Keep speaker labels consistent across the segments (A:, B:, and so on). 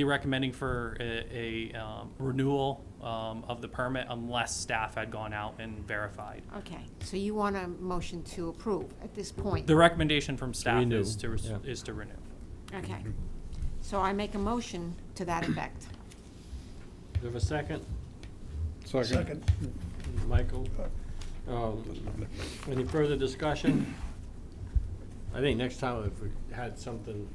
A: Be recommending for a, a um, renewal um, of the permit unless staff had gone out and verified.
B: Okay, so you want a motion to approve at this point?
A: The recommendation from staff
C: renew,
A: is to, res-
C: yeah.
A: is to renew.
B: Okay. So I make a motion to that effect.
C: Do you have a second?
D: Second.
C: Michael? Um, Any further discussion? I think next time if we had something,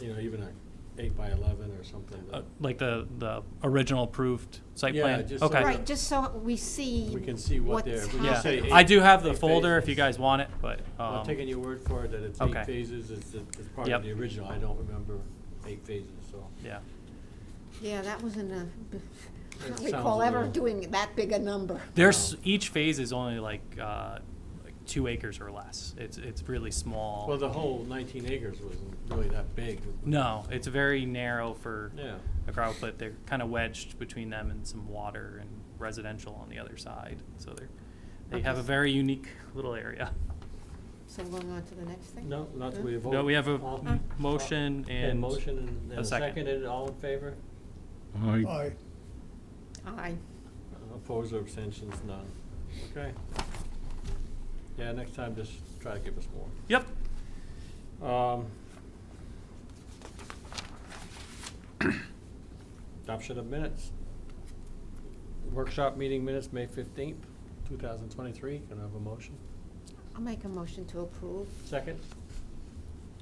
C: you know, even a eight by eleven or something.
A: Uh,
C: that
A: Like the, the original approved site
C: Yeah,
A: plan?
C: just so
A: Okay.
C: that-
B: Right, just so we see.
C: We can see what
B: what's
C: they're- we can
A: Yeah,
C: say
B: happening.
C: eight-
A: I do have the
C: eight
A: folder if you
C: phases.
A: guys want it, but,
C: I'm taking
A: um,
C: your word for it that it's eight
A: okay.
C: phases, it's, it's part
A: Yep.
C: of the original, I don't remember eight phases, so.
A: yeah.
B: Yeah, that wasn't a, I
C: It
B: don't
C: sounds
B: recall ever
C: real.
B: doing that big a number.
C: Um,
A: There's, each phase is only like, uh, like two acres or less. It's, it's really small.
C: Well, the whole nineteen acres wasn't really that big.
A: No, it's very narrow for
C: Yeah.
A: a crowd, but they're kind of wedged between them and some water and residential on the other side. So they're, they have a
B: Okay.
A: very unique little area.
B: So going on to the next thing?
C: No, not that we vote.
A: No, we have a
C: All-
A: m- motion
C: Okay,
A: and
C: motion and- and
A: a
C: a
A: second.
C: second, and all in favor?
D: Aye.
B: Aye.
C: Opposed or abstentions, none. Okay. Yeah, next time, just try to give us more.
A: Yep.
C: Um, Adoption of minutes. Workshop meeting minutes, May fifteenth, two thousand twenty-three. Can I have a motion?
B: I'll make a motion to approve.
C: Second?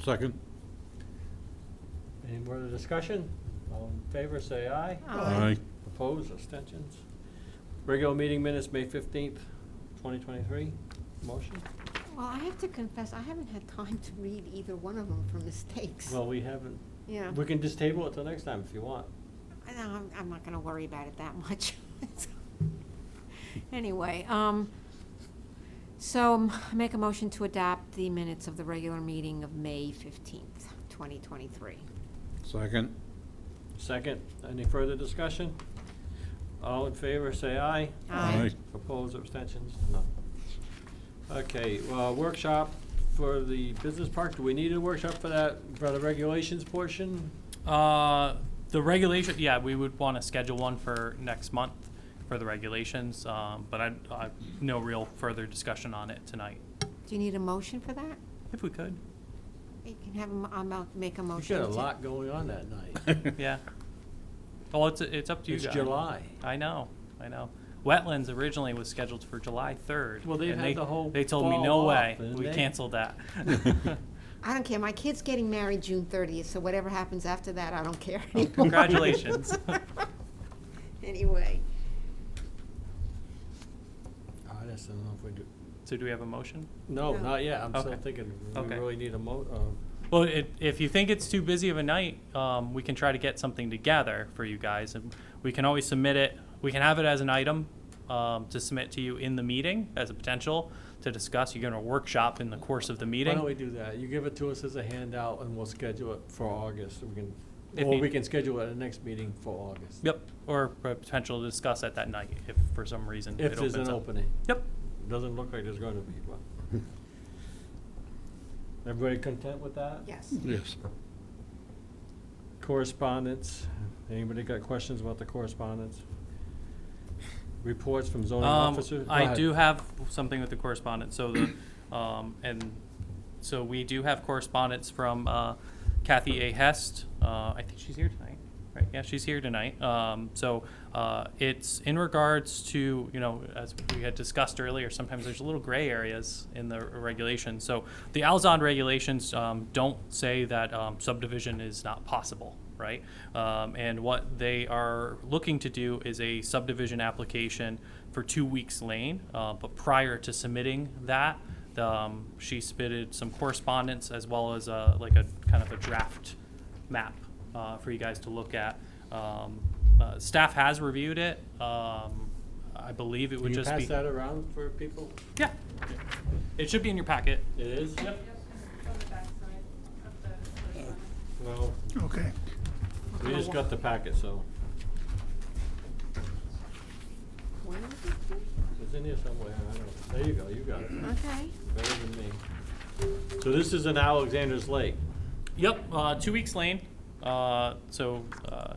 E: Second.
C: Any more discussion? All in favor, say aye.
B: Aye.
C: Opposed, abstentions? Regular meeting minutes, May fifteenth, twenty twenty-three. Motion?
B: Well, I have to confess, I haven't had time to read either one of them for mistakes.
C: Well, we haven't,
B: Yeah.
C: we can just table it till next time if you want.
B: I know, I'm, I'm not gonna worry about it that much. Anyway, um, so m- I make a motion to adopt the minutes of the regular meeting of May fifteenth, twenty twenty-three.
E: Second.
C: Second, any further discussion? All in favor, say aye.
B: Aye.
C: Opposed, abstentions, none. Okay, well, workshop for the business park, do we need a workshop for that, for the regulations portion?
A: Uh, the regulation, yeah, we would want to schedule one for next month for the regulations, um, but I, I, no real further discussion on it tonight.
B: Do you need a motion for that?
A: If we could,
B: You can have, a mo- I'll mo- make a
C: You
B: motion.
C: got a
B: to-
C: lot going on that night.
E: Aye.
A: yeah. Well, it's, it's up to you
C: It's
A: guys.
C: July.
A: I know, I know. Wetlands originally was scheduled for July third.
C: Well, they've
A: and
C: had
A: they-
C: the whole
A: They told me,
C: fall
A: no
C: off,
A: way,
C: haven't
A: we
C: they?"
A: canceled that.
B: I don't care, my kid's getting married June thirtieth, so whatever happens after that, I don't care
C: Oh,
B: anymore.
A: Congratulations.
B: Anyway,
C: I just don't know if we do,
A: So do we have a motion?
C: no,
B: No.
C: not yet, I'm still
A: Okay.
C: thinking, we
A: Okay.
C: really need a mo, uh,
A: Well, it, if you think it's too busy of a night, um, we can try to get something together for you guys. And we can always submit it, we can have it as an item, um, to submit to you in the meeting as a potential to discuss. You're gonna workshop in the course of the
C: why
A: meeting.
C: don't we do that? You give it to us as a handout and we'll schedule it for August, we can,
A: If
C: or
A: need-
C: we can schedule it at the next meeting for August.
A: Yep, or a potential to discuss at that night if for some reason it
C: If
A: opens
C: there's
A: up.
C: an opening.
A: Yep,
C: Doesn't look like there's going to be one. Everybody content with that?
B: yes.
E: Yes.
C: Correspondence, anybody got questions about the correspondence? Reports from zoning
A: Um,
C: officers? Go
A: I
C: ahead.
A: do have something with the correspondence, so the, um, and, so we do have correspondence from, uh, Kathy A. Hest, uh, I think she's here tonight, right, yeah, she's here tonight, um, so, uh, it's in regards to, you know, as we had discussed earlier, sometimes there's little gray areas in the regulations, so the Alzon regulations, um, don't say that, um, subdivision is not possible, right? Um, and what they are looking to do is a subdivision application for two weeks lane. Uh, but prior to submitting that, the, um, she submitted some correspondence as well as a, like a kind of a draft map uh, for you guys to look at. Um, uh, staff has reviewed it. Um, I believe it
C: Can
A: would
C: you
A: just be
C: pass that around for people?
A: yeah. It should be in your packet.
C: It is?
A: Yep.
F: From the backside of the first one.
C: Well,
D: Okay.
C: we just got the packet, so
B: When was it?
C: it's in here somewhere, I don't know. There you go, you got it,
B: Okay,
C: better than me. So this is in Alexander's Lake.
A: Yep. Uh, two weeks lane. Uh, so, uh,